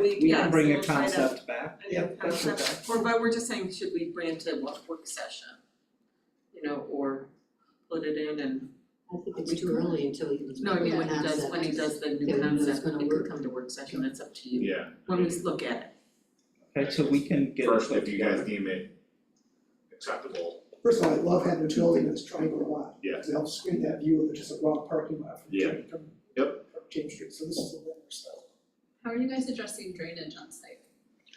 We can bring a Yeah, so we'll try to- concept back, a new yeah, that's okay. concept, or but we're just saying, should we grant a work work session? You know, or put it in and, I think it's too early until he was. no, I mean, when he does, when he does the Yeah, new we know it's concept, gonna it work. could come to work session, it's up to you, Yeah. when we look at it. Okay, so we can get it First, put if you guys together. deem it acceptable, First of all, I love having a building that's triangle lot. Yeah. Because it helps screen that view of just a raw parking lot from Yeah. James, from from James Street, so this is a winner, so. How are you guys addressing drainage on site?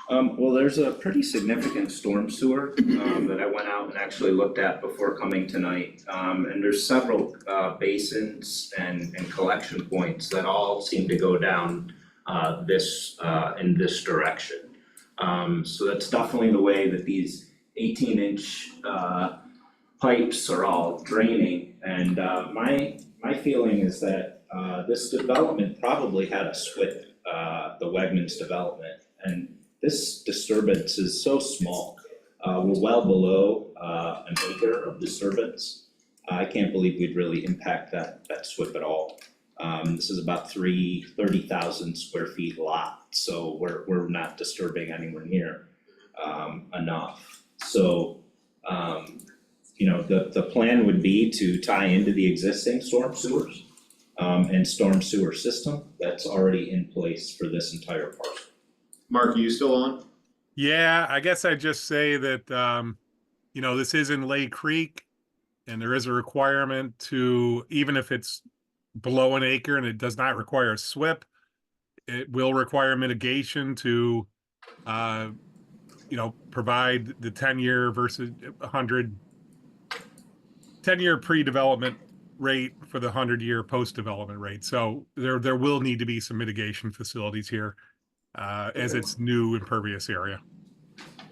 Um, well, there's a pretty significant storm sewer, um, that I went out and actually looked at before coming tonight. Um, and there's several, uh, basins and, and collection points that all seem to go down, uh, this, uh, in this direction. Um, so that's definitely the way that these eighteen inch, uh, pipes are all draining. And, uh, my, my feeling is that, uh, this development probably had a split, uh, the Wegmans development. And this disturbance is so small. Uh, we're well below, uh, an acre of disturbance. I can't believe we'd really impact that, that SWIP at all. Um, this is about three, thirty thousand square feet lot, so we're, we're not disturbing anywhere near, um, enough. So, um, you know, the, the plan would be to tie into the existing storm sewers, um, and storm sewer system that's already in place for this entire parcel. Mark, are you still on? Yeah, I guess I'd just say that, um, you know, this is in Lay Creek. And there is a requirement to, even if it's below an acre and it does not require a SWIP, it will require mitigation to, uh, you know, provide the ten-year versus a hundred, ten-year pre-development rate for the hundred-year post-development rate. So there, there will need to be some mitigation facilities here, uh, as it's new impervious area.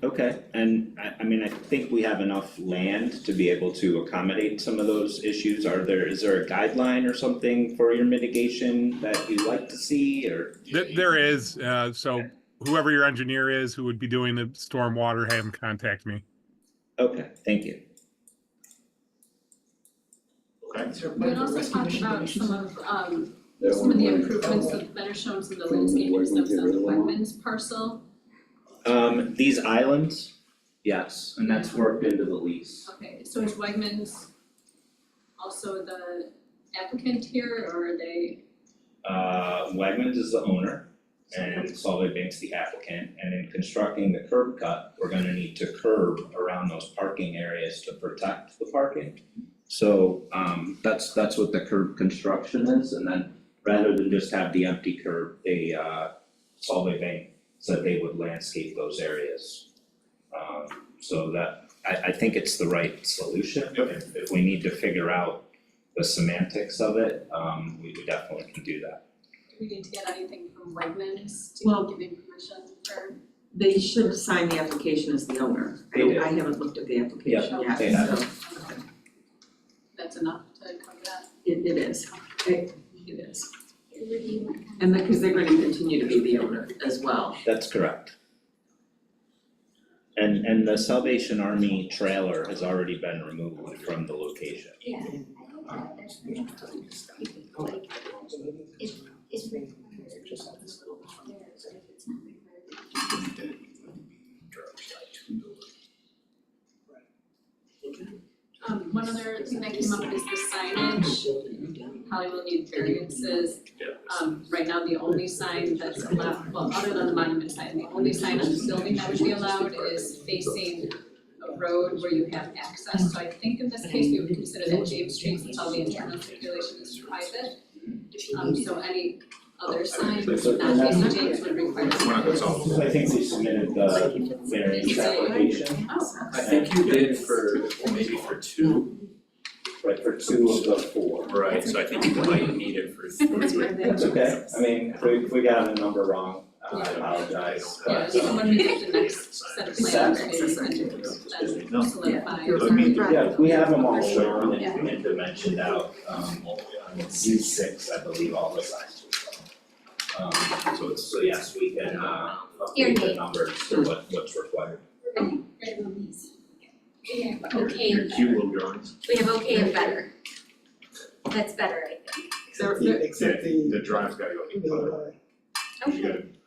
Okay, and I, I mean, I think we have enough land to be able to accommodate some of those issues. Are there, is there a guideline or something for your mitigation that you'd like to see or? Th- There is, uh, so whoever your engineer is who would be doing the stormwater, have him contact me. Okay, thank you. Okay. Is there a We plan can for also rescue talk mission about donations? some of, um, some of the improvements that that are shown, some of the Clean the Wegmans, landscaping stuff get on rid the of them all. Wegmans parcel. Um, these islands? Yes, and that's worked into the lease. Okay, so is Wegmans also the applicant here, or are they, Uh, Wegmans is the owner and Solid Bank's the applicant. And in constructing the curb cut, we're gonna need to curb around those parking areas to protect the parking. So, um, that's, that's what the curb construction is. And then rather than just have the empty curb, they, uh, Solid Bank said they would landscape those areas. Um, so that, I, I think it's the right solution. Yep. If, if we need to figure out the semantics of it, um, we we definitely can do that. do we need to get anything from Wegmans Well- to give him permission for? They should sign the application as the owner. I They do. I haven't looked at the application Yeah, yet, they have. so That's enough to cover that? it it is, it it is. And because they're gonna continue to be the owner as well. That's correct. And and the Salvation Army trailer has already been removed from the location. Yeah, I think that that's really cool. Like, if it's required, there's a little out there, but if it's not required. Um, one other thing that came up is the signage, probably will need variances. Um, right now, the only sign that's allowed, well, other than the monument sign, the only sign on the building that would be allowed is facing a road where you have access, so I think in this case, we would consider that James Street, since all the internal circulation is private. Um, so any other sign, not facing James would require. We're not gonna solve So I think we submitted the variance application, Oh, I think you did for, maybe for two, right, for two of the four. right, so I think you might need it for That's three. where they- That's okay, I mean, if we if we got a number wrong, uh, I Yeah. apologize, Yeah, but so um, when we get the next set of plans, Exactly. maybe we can then No. solidify. I mean, yeah, if we have them all shown and and dimensioned out, um C six, I believe, all the sizes. Um so it's, so yes, we can uh update the numbers to what what's required. Right, well, these. Yeah, your- okay Your and cute better. little drawings, We have okay and better. That's better, I think. They're- Except the, except the, the drive's gotta go, the, uh, you gotta